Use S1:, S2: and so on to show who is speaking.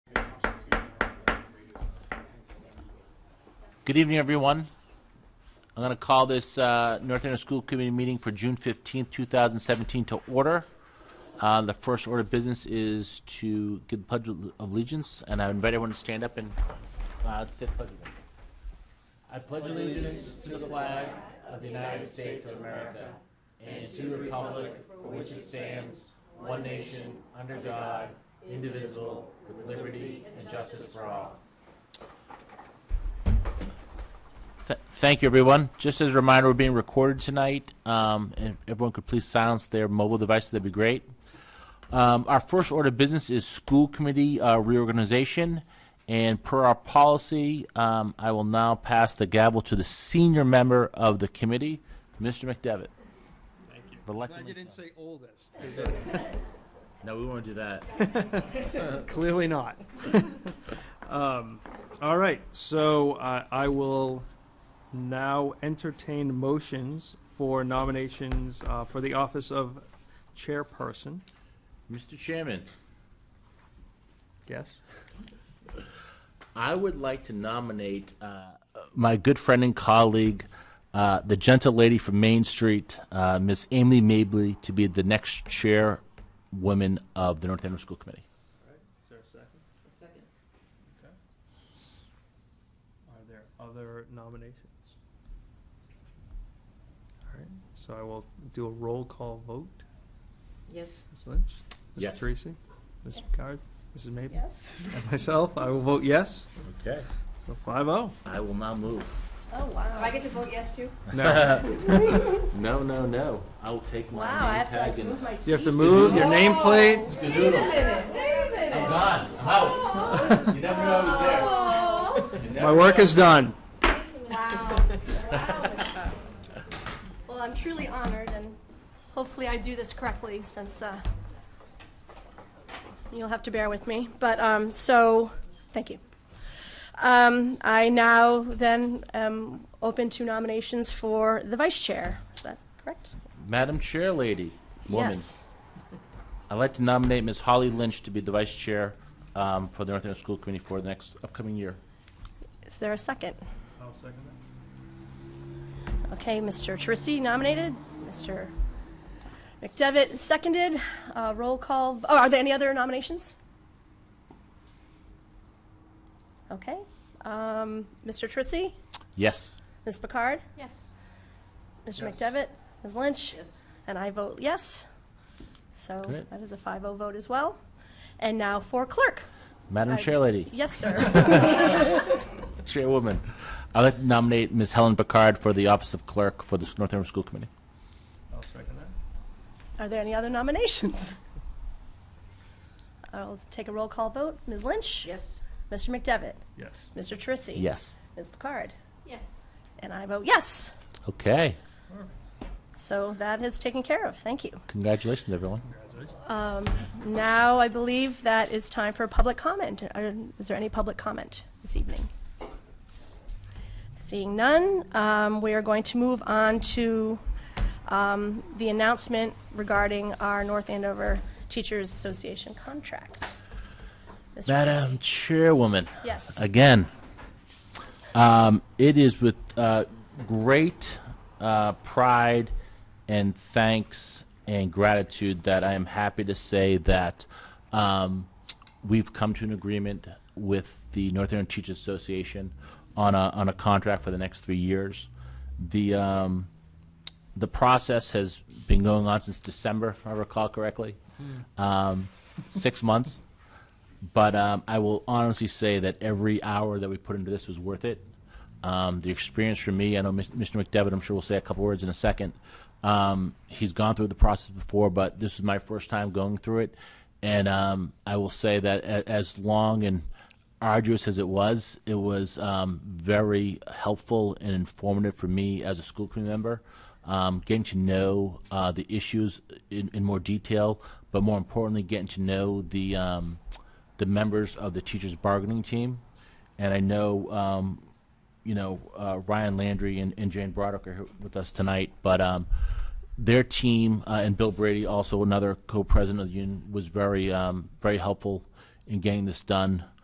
S1: Good evening, everyone. I'm going to call this uh, North Andover School Committee meeting for June 15th, 2017 to order. Uh, The first order of business is to give the pledge of allegiance, and I invite everyone to stand up and uh, say the pledge. of allegiance. I pledge allegiance to the flag of the United States of America and to the republic for which it stands, one nation, under God, indivisible, with liberty and justice for all. Th- Thank you, everyone. Just as a reminder, we're being recorded tonight. Um, and if everyone could please silence their mobile devices, that'd be great. Um, our first order of business is school committee uh, reorganization. And per our policy, um, I will now pass the gavel to the senior member of the committee, Mr. McDevitt.
S2: Thank you. Glad
S1: Reluctantly
S2: you didn't
S1: so.
S2: say oldest.
S1: No, we won't do that.
S2: Clearly not. Um, All right, so uh, I will now entertain motions for nominations uh, for the office of chairperson.
S1: Mr. Chairman,
S2: Yes?
S1: I would like to nominate uh, my good friend and colleague, uh, the gentle lady from Main Street, uh, Miss Amy Mabley, to be the next chairwoman of the North Andover School Committee.
S2: Is there a second?
S3: A second.
S2: Are there other nominations? All right, so I will do a roll call vote.
S3: Yes.
S2: Ms. Lynch?
S1: Yes.
S2: Mrs. Teresi? Ms. Picard? Mrs. Mabel?
S3: Yes.
S2: And myself, I will vote yes.
S1: Okay.
S2: So five oh.
S1: I will not move.
S3: Oh, wow. Do I get to vote yes too?
S2: No.
S1: No, no, no. I will take my
S3: Wow, I
S1: name
S3: have to
S1: tag
S3: like
S1: and.
S3: move my seat.
S2: You have to move your nameplate.
S3: Wait a minute, wait a
S1: I'm
S3: minute.
S1: gone. I'm out. You never knew I was
S3: Oh,
S1: there. You
S2: My
S1: never
S2: work
S1: knew.
S2: is done.
S3: wow. Wow. Well, I'm truly honored and hopefully I do this correctly since, uh, you'll have to bear with me, but, um, so, thank you. Um, I now then am open to nominations for the vice chair. Is that correct?
S1: Madam Chair Lady, woman,
S3: Yes.
S1: I'd like to nominate Ms. Holly Lynch to be the vice chair um, for the North Andover School Committee for the next upcoming year.
S3: Is there a second?
S2: I'll second that.
S3: Okay, Mr. Trissy nominated, Mr. McDevitt seconded, Uh, roll call, oh, are there any other nominations? Okay, um, Mr. Trissy,
S1: Yes.
S3: Ms. Picard,
S4: Yes.
S3: Mr.
S2: Yes.
S3: McDevitt, Ms. Lynch,
S4: Yes.
S3: and I vote yes. So
S1: Great.
S3: that is a 5-0 vote as well. And now for clerk.
S1: Madam
S3: I-
S1: Chair Lady,
S3: Yes, sir.
S1: Chairwoman, I'd like to nominate Ms. Helen Picard for the office of clerk for the North Andover School Committee.
S2: I'll second that.
S3: Are there any other nominations? I'll take a roll call vote. Ms. Lynch?
S4: Yes.
S3: Mr. McDevitt?
S2: Yes.
S3: Mr. Trissy?
S1: Yes.
S3: Ms. Picard?
S4: Yes.
S3: And I vote yes.
S1: Okay.
S3: So that is taken care of. Thank you. Um,
S1: Congratulations, everyone.
S2: Congratulations.
S3: Now, I believe that is time for public comment. Uh, Is there any public comment this evening? Seeing none, um, we are going to move on to um, the announcement regarding our North Andover Teachers Association contract. Mr.
S1: Madam Chairwoman,
S3: Yes.
S1: again, um, it is with uh, great uh, pride and thanks and gratitude that I am happy to say that um, we've come to an agreement with the North Andover Teachers Association on a, on a contract for the next three years. The um, the process has been going on since December, if I recall correctly, um, six months. But um, I will honestly say that every hour that we put into this was worth it. Um, the experience for me, I know Mis- Mr. McDevitt, I'm sure will say a couple words in a second. Um, he's gone through the process before, but this is my first time going through it. And um, I will say that a- as long and arduous as it was, it was um, very helpful and informative for me as a school committee member. Um, getting to know uh, the issues in, in more detail, but more importantly, getting to know the um, the members of the teachers bargaining team. And I know um, you know, uh, Ryan Landry and, and Jane Broderick are here with us tonight, but um, their team uh, and Bill Brady, also another co-president of the union, was very, um, very helpful in getting this done.